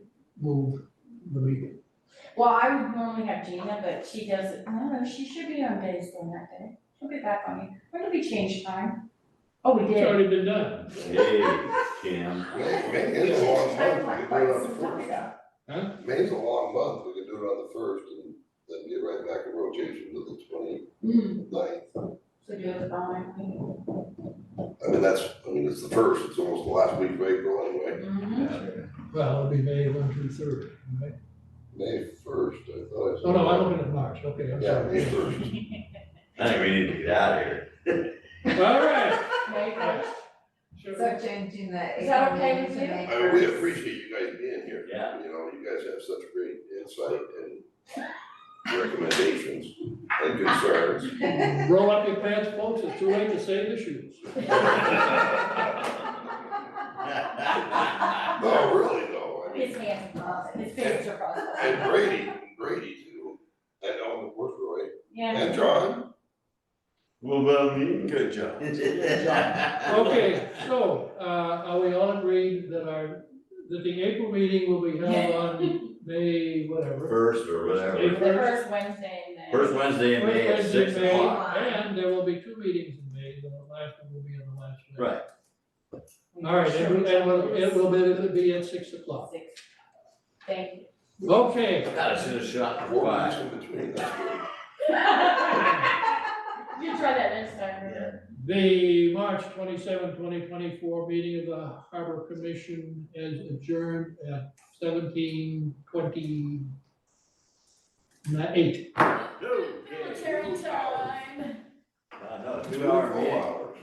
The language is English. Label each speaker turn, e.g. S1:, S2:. S1: move the meeting.
S2: Well, I would normally have Gina, but she doesn't, I don't know, she should be on days during that day. She'll be back on me. When did we change time? Oh, we
S3: It's
S2: did.
S3: already been done.
S4: Hey, Kim,
S5: May, May is a long month, we could do it on the first.
S3: Huh?
S5: May's a long month, we could do it on the first and then get right back in rotation to the
S2: Hmm,
S5: twenty-ninth.
S2: so do it
S3: Mm-hmm.
S2: on
S5: I mean, that's, I mean, it's the first, it's almost the last week of April
S2: my.
S5: anyway,
S2: Mhm.
S1: Well, it'll be May one through third, right?
S5: May first, I thought I said.
S1: Oh, no, I'm looking at March, okay, I'm
S5: Yeah, May
S1: sorry.
S5: first.
S4: I think we need to get out of here.
S3: All right.
S2: May first.
S3: Sure.
S6: So changing the
S2: Is that
S6: April
S2: okay
S6: meeting
S2: with
S6: to
S2: you?
S6: May
S5: I mean, we
S6: first.
S5: appreciate you guys being here.
S4: Yeah.
S5: You know, you guys have such great insight and recommendations and concerns.
S3: Roll up your pants, folks, it's too late to save the shoes.
S5: No, really though, I
S2: His
S5: mean,
S2: hands are crossed, his fingers are crossed.
S5: and Brady, Brady too, and oh, Ellen Worthroy,
S2: Yeah.
S5: and John,
S4: What about me?
S5: good job.
S3: Okay, so, uh, are we all agreed that our, that the April meeting will be held on May whatever?
S4: First or
S2: The
S4: whatever,
S2: first Wednesday in May.
S4: first Wednesday in May at
S3: First Wednesday
S4: six
S3: in May,
S4: o'clock.
S3: And there will be two meetings in May, the last one will be on the last day.
S4: Right,
S3: All right, and it will, it will be, it'll be at six o'clock.
S2: Six. Thank you.
S3: Okay,
S4: God, I should have shot for
S5: Four weeks
S4: five.
S5: in between, that's good.
S2: You try that next time. Ruth.
S3: The March 27, 2024 meeting of the Harbor Commission is adjourned at seventeen twenty eight.
S4: Okay.
S2: Military time.
S4: Uh, no, two hour
S5: Four
S4: meeting.
S5: hours.